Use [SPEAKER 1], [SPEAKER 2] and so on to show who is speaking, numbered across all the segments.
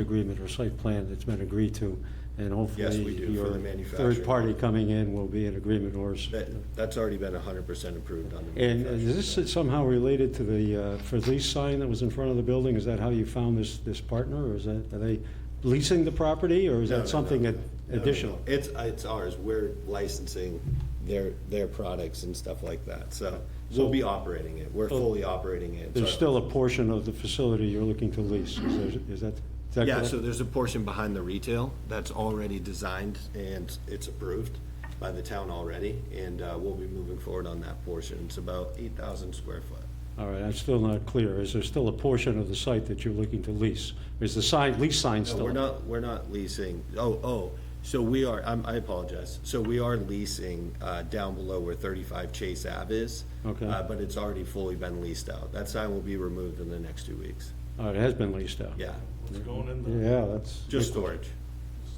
[SPEAKER 1] agreement or site plan that's been agreed to, and hopefully.
[SPEAKER 2] Yes, we do, for the
[SPEAKER 1] your
[SPEAKER 2] manufacturing.
[SPEAKER 1] Third party coming in will be in agreement or. s-
[SPEAKER 2] That, that's already been hundred percent approved on the.
[SPEAKER 1] And
[SPEAKER 2] manufacturer
[SPEAKER 1] is
[SPEAKER 2] side.
[SPEAKER 1] this somehow related to the, uh, for lease sign that was in front of the building? Is that how you found this, this partner, or is that, are they leasing the property, or is
[SPEAKER 2] No, no,
[SPEAKER 1] that something
[SPEAKER 2] no.
[SPEAKER 1] ad-
[SPEAKER 2] No, no, no.
[SPEAKER 1] additional?
[SPEAKER 2] It's, it's ours, we're licensing their, their products and stuff like that, so we'll be operating it, we're fully operating it.
[SPEAKER 1] There's
[SPEAKER 2] So-
[SPEAKER 1] still a portion of the facility you're looking to lease, is there- is that? is that
[SPEAKER 2] Yeah,
[SPEAKER 1] correct?
[SPEAKER 2] so there's a portion behind the retail that's already designed and it's approved by the town already, and uh, we'll be moving forward on that portion. It's about eight thousand square foot.
[SPEAKER 1] All right, I'm still not clear. Is there still a portion of the site that you're looking to lease? Is the sign, lease sign
[SPEAKER 2] No,
[SPEAKER 1] still?
[SPEAKER 2] We're not, we're not leasing, oh, oh, so we are, I'm- I apologize. So we are leasing uh, down below where 35 Chase Ave is.
[SPEAKER 1] Okay.
[SPEAKER 2] uh, But it's already fully been leased out. That sign will be removed in the next two weeks.
[SPEAKER 1] All right, it has been leased out.
[SPEAKER 2] Yeah,
[SPEAKER 3] What's going in the
[SPEAKER 1] Yeah, that's.
[SPEAKER 2] just storage.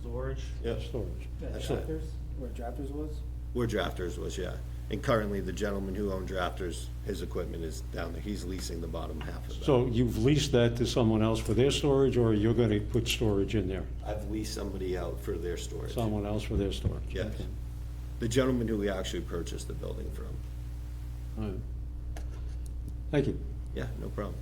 [SPEAKER 3] storage?
[SPEAKER 2] Yep,
[SPEAKER 1] Storage.
[SPEAKER 2] That's
[SPEAKER 4] Yeah,
[SPEAKER 2] it.
[SPEAKER 4] Drafters, where Drafters was?
[SPEAKER 2] where Drafters was, yeah. And currently, the gentleman who owned Drafters, his equipment is down there. He's leasing the bottom half of that.
[SPEAKER 1] So you've leased that to someone else for their storage, or you're going to put storage in there?
[SPEAKER 2] I've leased somebody out for their storage.
[SPEAKER 1] Someone else for their storage?
[SPEAKER 2] Yes.
[SPEAKER 1] Okay.
[SPEAKER 2] The gentleman who we actually purchased the building from.
[SPEAKER 1] All right. Thank you.
[SPEAKER 2] Yeah, no problem.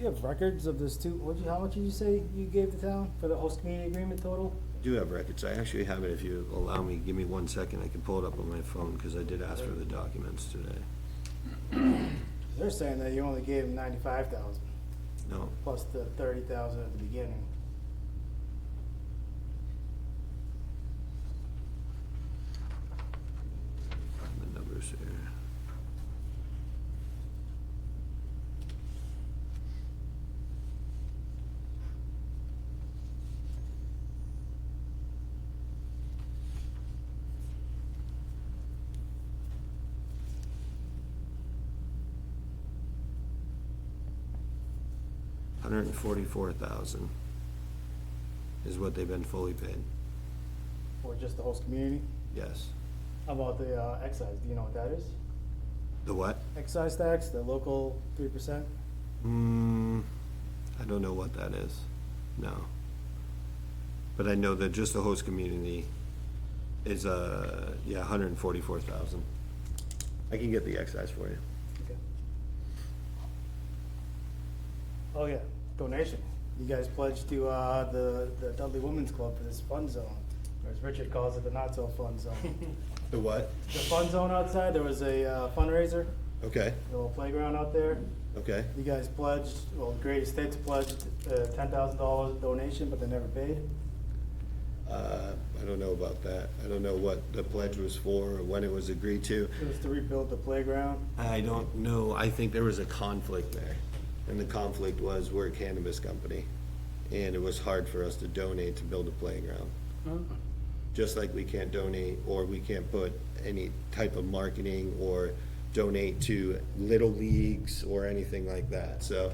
[SPEAKER 4] You have records of this too, what, how much did you say you gave the town for the host community agreement total?
[SPEAKER 2] Do have records. I actually have it. If you allow me, give me one second. I can pull it up on my phone because I did ask for the documents today.
[SPEAKER 4] They're saying that you only gave them ninety-five thousand,
[SPEAKER 2] No,
[SPEAKER 4] plus the thirty thousand at the beginning.
[SPEAKER 2] the numbers here. Hundred and forty-four thousand is what they've been fully paid,
[SPEAKER 4] Or just the host community?
[SPEAKER 2] yes.
[SPEAKER 4] How about the uh, excise, do you know what that is?
[SPEAKER 2] The what?
[SPEAKER 4] Excise tax, the local three percent?
[SPEAKER 2] Hmm, I don't know what that is, no. But I know that just the host community is, uh, yeah, hundred and forty-four thousand. I can get the excise for you.
[SPEAKER 4] Okay. Oh, yeah, donation. You guys pledged to, uh, the, the Dudley Women's Club for this fun zone, or as Richard calls it, the not-so-fun zone.
[SPEAKER 2] The what?
[SPEAKER 4] The fun zone outside, there was a uh, fundraiser,
[SPEAKER 2] Okay,
[SPEAKER 4] a little playground out there.
[SPEAKER 2] okay,
[SPEAKER 4] You guys pledged, well, the Great Estates pledged uh, ten thousand dollars donation, but they never paid.
[SPEAKER 2] uh, I don't know about that, I don't know what the pledge was for, or when it was agreed to.
[SPEAKER 4] It was to rebuild the playground.
[SPEAKER 2] I don't know, I think there was a conflict there, and the conflict was we're a cannabis company, and it was hard for us to donate to build a playground. just like we can't donate or we can't put any type of marketing or donate to little leagues or anything like that. So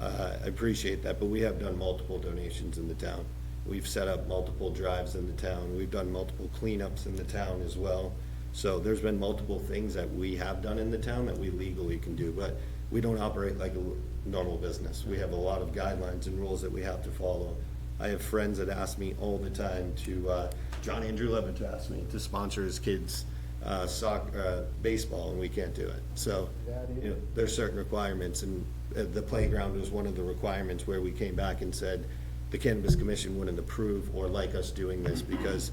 [SPEAKER 2] uh, I appreciate that, but we have done multiple donations in the town. We've set up multiple drives in the town. We've done multiple cleanups in the town as well. So there's been multiple things that we have done in the town that we legally can do, but we don't operate like a normal business. We have a lot of guidelines and rules that we have to follow. I have friends that ask me all the time to, uh, John Andrew Levitt asked me to sponsor his kids' uh, soccer, uh, baseball, and we can't do it. So,
[SPEAKER 4] Yeah, dude.
[SPEAKER 2] you know, there's certain requirements, and uh, the playground was one of the requirements where we came back and said, the Cannabis Commission wouldn't approve or like us doing this, because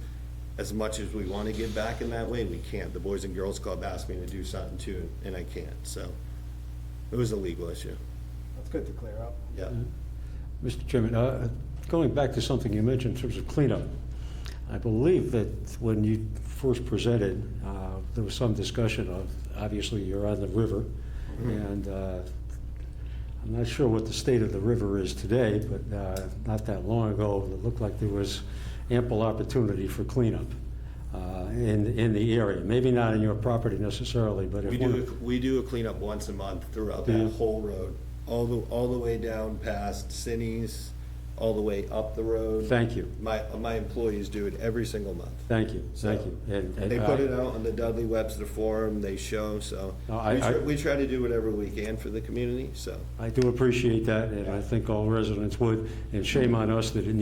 [SPEAKER 2] as much as we want to give back in that way, we can't. The Boys and Girls Club asked me to do something too, and I can't, so it was a legal issue,
[SPEAKER 4] That's good to clear up.
[SPEAKER 2] yeah.
[SPEAKER 1] Mr. Chairman, uh, going back to something you mentioned in terms of cleanup, I believe that when you first presented, uh, there was some discussion of, obviously, you're on the river,
[SPEAKER 2] Mm-hmm.
[SPEAKER 1] and uh, I'm not sure what the state of the river is today, but uh, not that long ago, it looked like there was ample opportunity for cleanup uh, in, in the area. Maybe not in your property necessarily, but if
[SPEAKER 2] We
[SPEAKER 1] one of-
[SPEAKER 2] do, we do a cleanup once a month throughout
[SPEAKER 1] Yeah.
[SPEAKER 2] that whole road, all the, all the way down past Sinny's, all the way up the road.
[SPEAKER 1] Thank you,
[SPEAKER 2] My, my employees do it every single month.
[SPEAKER 1] thank you, thank you. And- and
[SPEAKER 2] They put
[SPEAKER 1] I-
[SPEAKER 2] it out on the Dudley Webster Forum, they show, so
[SPEAKER 1] No, I-
[SPEAKER 2] we try,
[SPEAKER 1] I-
[SPEAKER 2] we try to do whatever we can for the community, so.
[SPEAKER 1] I do appreciate that, and I think all residents would, and shame on us that it